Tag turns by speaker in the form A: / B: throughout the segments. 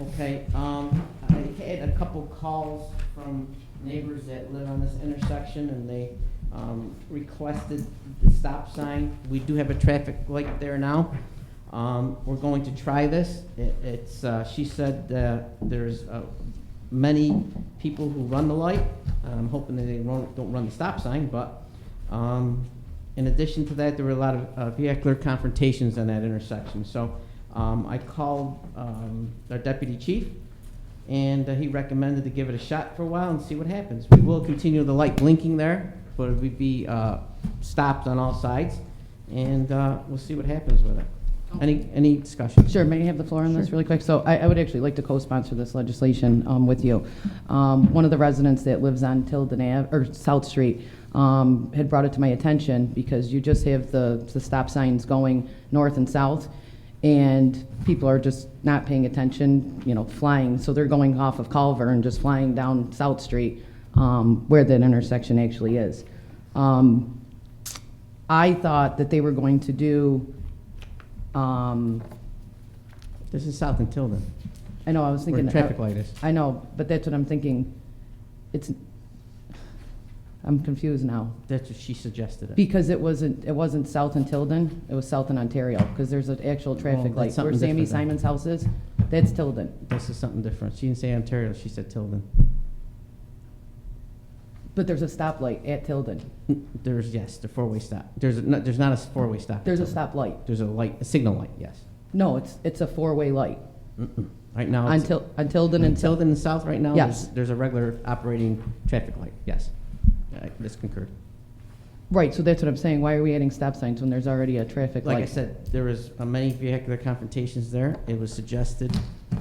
A: Okay, um, I had a couple calls from neighbors that live on this intersection and they, um, requested the stop sign. We do have a traffic light there now. Um, we're going to try this. It, it's, uh, she said, uh, there's, uh, many people who run the light. I'm hoping that they won't, don't run the stop sign, but, um, in addition to that, there were a lot of uh, vehicular confrontations on that intersection. So um, I called um, our deputy chief, and uh, he recommended to give it a shot for a while and see what happens. We will continue the light blinking there, but it would be uh, stopped on all sides, and uh, we'll see what happens with it. Any, any discussion?
B: Sure, may I have the floor on this
A: Sure.
B: really quick? So I, I would actually like to co-sponsor this legislation um, with you. Um, One of the residents that lives on Tilden Ave, or South Street, um, had brought it to my attention because you just have the, the stop signs going north and south, and people are just not paying attention, you know, flying. So they're going off of Culver and just flying down South Street um, where that intersection actually is. Um, I thought that they were going to do um,
A: This is South and Tilden,
B: I know, I was
A: where
B: thinking.
A: the traffic light is.
B: I know, but that's what I'm thinking. It's, I'm confused now.
A: That's what she suggested. it.
B: Because it wasn't, it wasn't south in Tilden, it was south in Ontario, because there's an actual traffic
A: that's
B: light. Where
A: something
B: Sammy
A: different then.
B: Simon's house is, that's Tilden.
A: This is something different. She didn't say Ontario, she said Tilden.
B: But there's a stoplight at Tilden.
A: There's, yes, the four-way stop. There's, a- no, there's not a four-way stop. at
B: There's a
A: Tilden.
B: stoplight.
A: There's a light, a signal light, yes.
B: No, it's, it's a four-way light
A: Mm-mm. Right now,
B: on
A: Oh, it's-
B: Til, on Tilden
A: in
B: and Tilden.
A: Tilden and South right now, there's-
B: Yes.
A: there's a regular operating traffic light, yes. I- This concurred.
B: Right, so that's what I'm saying. Why are we adding stop signs when there's already a traffic light?
A: Like I said, there was uh, many vehicular confrontations there. It was suggested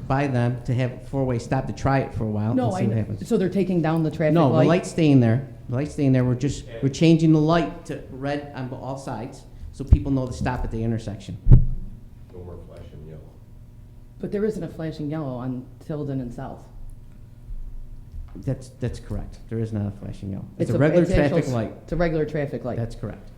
A: by them to have a four-way stop to try it for a while
B: No,
A: and
B: I,
A: see what
B: know.
A: happens.
B: so they're taking down the traffic
A: No, the
B: light?
A: light's staying there. The light's staying there. We're just, we're changing the light to red on all sides so people know to stop at the intersection.
C: No more flashing yellow.
B: But there isn't a flashing yellow on Tilden and South.
A: That's, that's correct. There is not a flashing yellow. It's a
B: a-
A: regular
B: it's actual
A: traffic
B: s-
A: light.
B: It's a regular traffic light.
A: That's correct.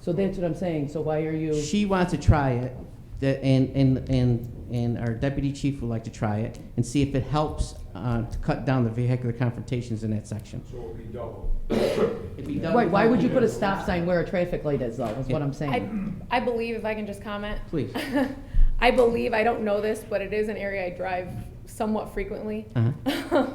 B: So that's what I'm saying, so why are you,
A: She wants to try it, that- and, and, and, and our deputy chief would like to try it and see if it helps uh, to cut down the vehicular confrontations in that section.
C: So it'll be double.
A: If he doesn't-
B: wait, why would you put a stop sign where a traffic light is though, is what I'm
D: I,
B: saying?
D: I believe, if I can just comment.
A: Please.
D: I believe, I don't know this, but it is an area I drive somewhat frequently.
A: Uh-huh.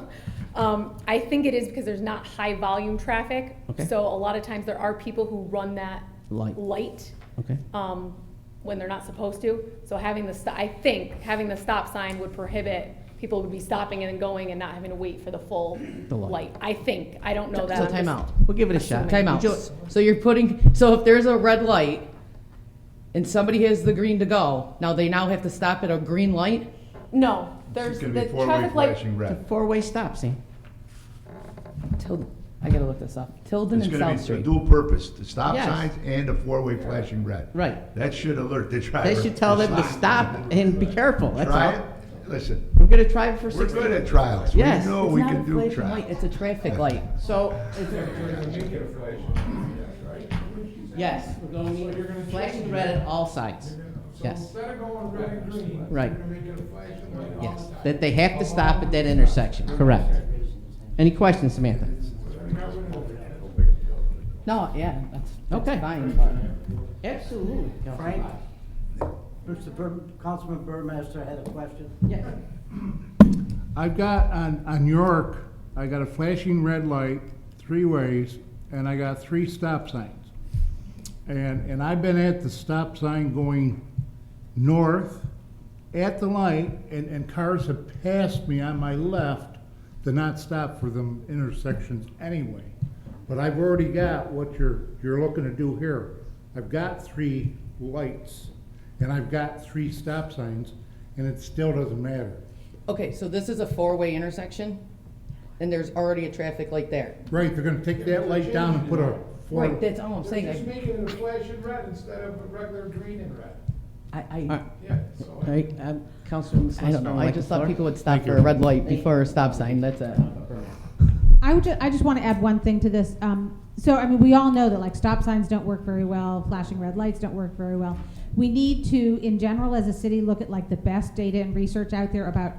D: Um, I think it is because there's not high volume traffic.
A: Okay.
D: So a lot of times there are people who run that
A: Light,
D: light,
A: okay.
D: um, when they're not supposed to. So having the, sto- I think, having the stop sign would prohibit, people would be stopping and then going and not having to wait for the full
A: The light.
D: light. I think, I don't know that.
B: So
D: I'm
B: time
D: just-
B: out.
A: We'll give it a shot.
B: Time
A: Would
B: out.
A: you-
B: So you're putting, so if there's a red light and somebody has the green to go, now they now have to stop at a green light?
D: No, there's
E: It's
D: the
E: gonna be four-way
D: traffic light.
E: flashing
A: It's a
E: red.
A: four-way stop, Sam.
B: Tilden, I gotta look this up. Tilden
E: It's
B: and
E: gonna
B: South
E: be a
B: Street.
E: dual purpose, the stop
A: Yes.
E: signs and the four-way flashing red.
A: Right.
E: That should alert the driver.
A: They should tell them to stop and be careful, that's
E: Try it,
A: all.
E: listen,
A: We're gonna try it for
E: we're
A: six.
E: good at trials. We
A: Yes.
E: know
B: It's
E: we
B: not a
E: can do
B: flashing light,
E: trials.
B: It's a traffic light.
A: So,
C: Make it a flashing, yes, right?
A: yes, we're gonna need flashing red at all sides. Yes,
C: Instead of going red and green,
A: right,
C: make it a flashing light.
A: yes. That they have to stop at that intersection, correct. Any questions, Samantha?
B: No, yeah, that's,
A: Okay.
B: that's fine. but-
A: Absolutely.
F: Frank? Mr. Bur- Councilman Burmaster had a question.
A: Yeah.
G: I've got on, on York, I got a flashing red light, three ways, and I got three stop signs. And, and I've been at the stop sign going north at the light, and, and cars have passed me on my left to not stop for them intersections anyway. But I've already got what you're, you're looking to do here. I've got three lights, and I've got three stop signs, and it still doesn't matter.
B: Okay, so this is a four-way intersection and there's already a traffic light there.
G: Right, they're gonna take that light down and put a four.
B: Right, that's all I'm
C: They're just
B: saying.
C: making it a flashing red instead of a regular green and red.
B: I, I.
A: All
C: Yeah, so.
A: right, um, Councilman
B: I don't know, I just thought people would stop for a red light before a stop sign, that's it.
H: I would ju- I just want to add one thing to this. Um, so I mean, we all know that like stop signs don't work very well, flashing red lights don't work very well. We need to, in general, as a city, look at like the best data and research out there about